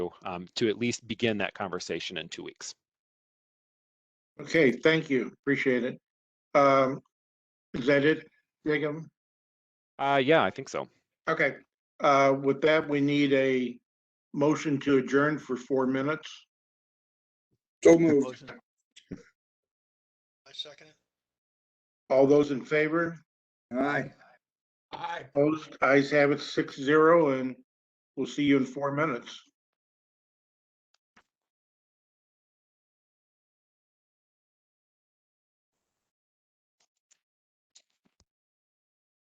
um, to at least begin that conversation in two weeks. Okay, thank you. Appreciate it. Um, is that it, Jacob? Uh, yeah, I think so. Okay, uh, with that, we need a motion to adjourn for four minutes. So moved. Motion. I second it. All those in favor? Aye. Aye. Opposed? Eyes have it six zero and we'll see you in four minutes.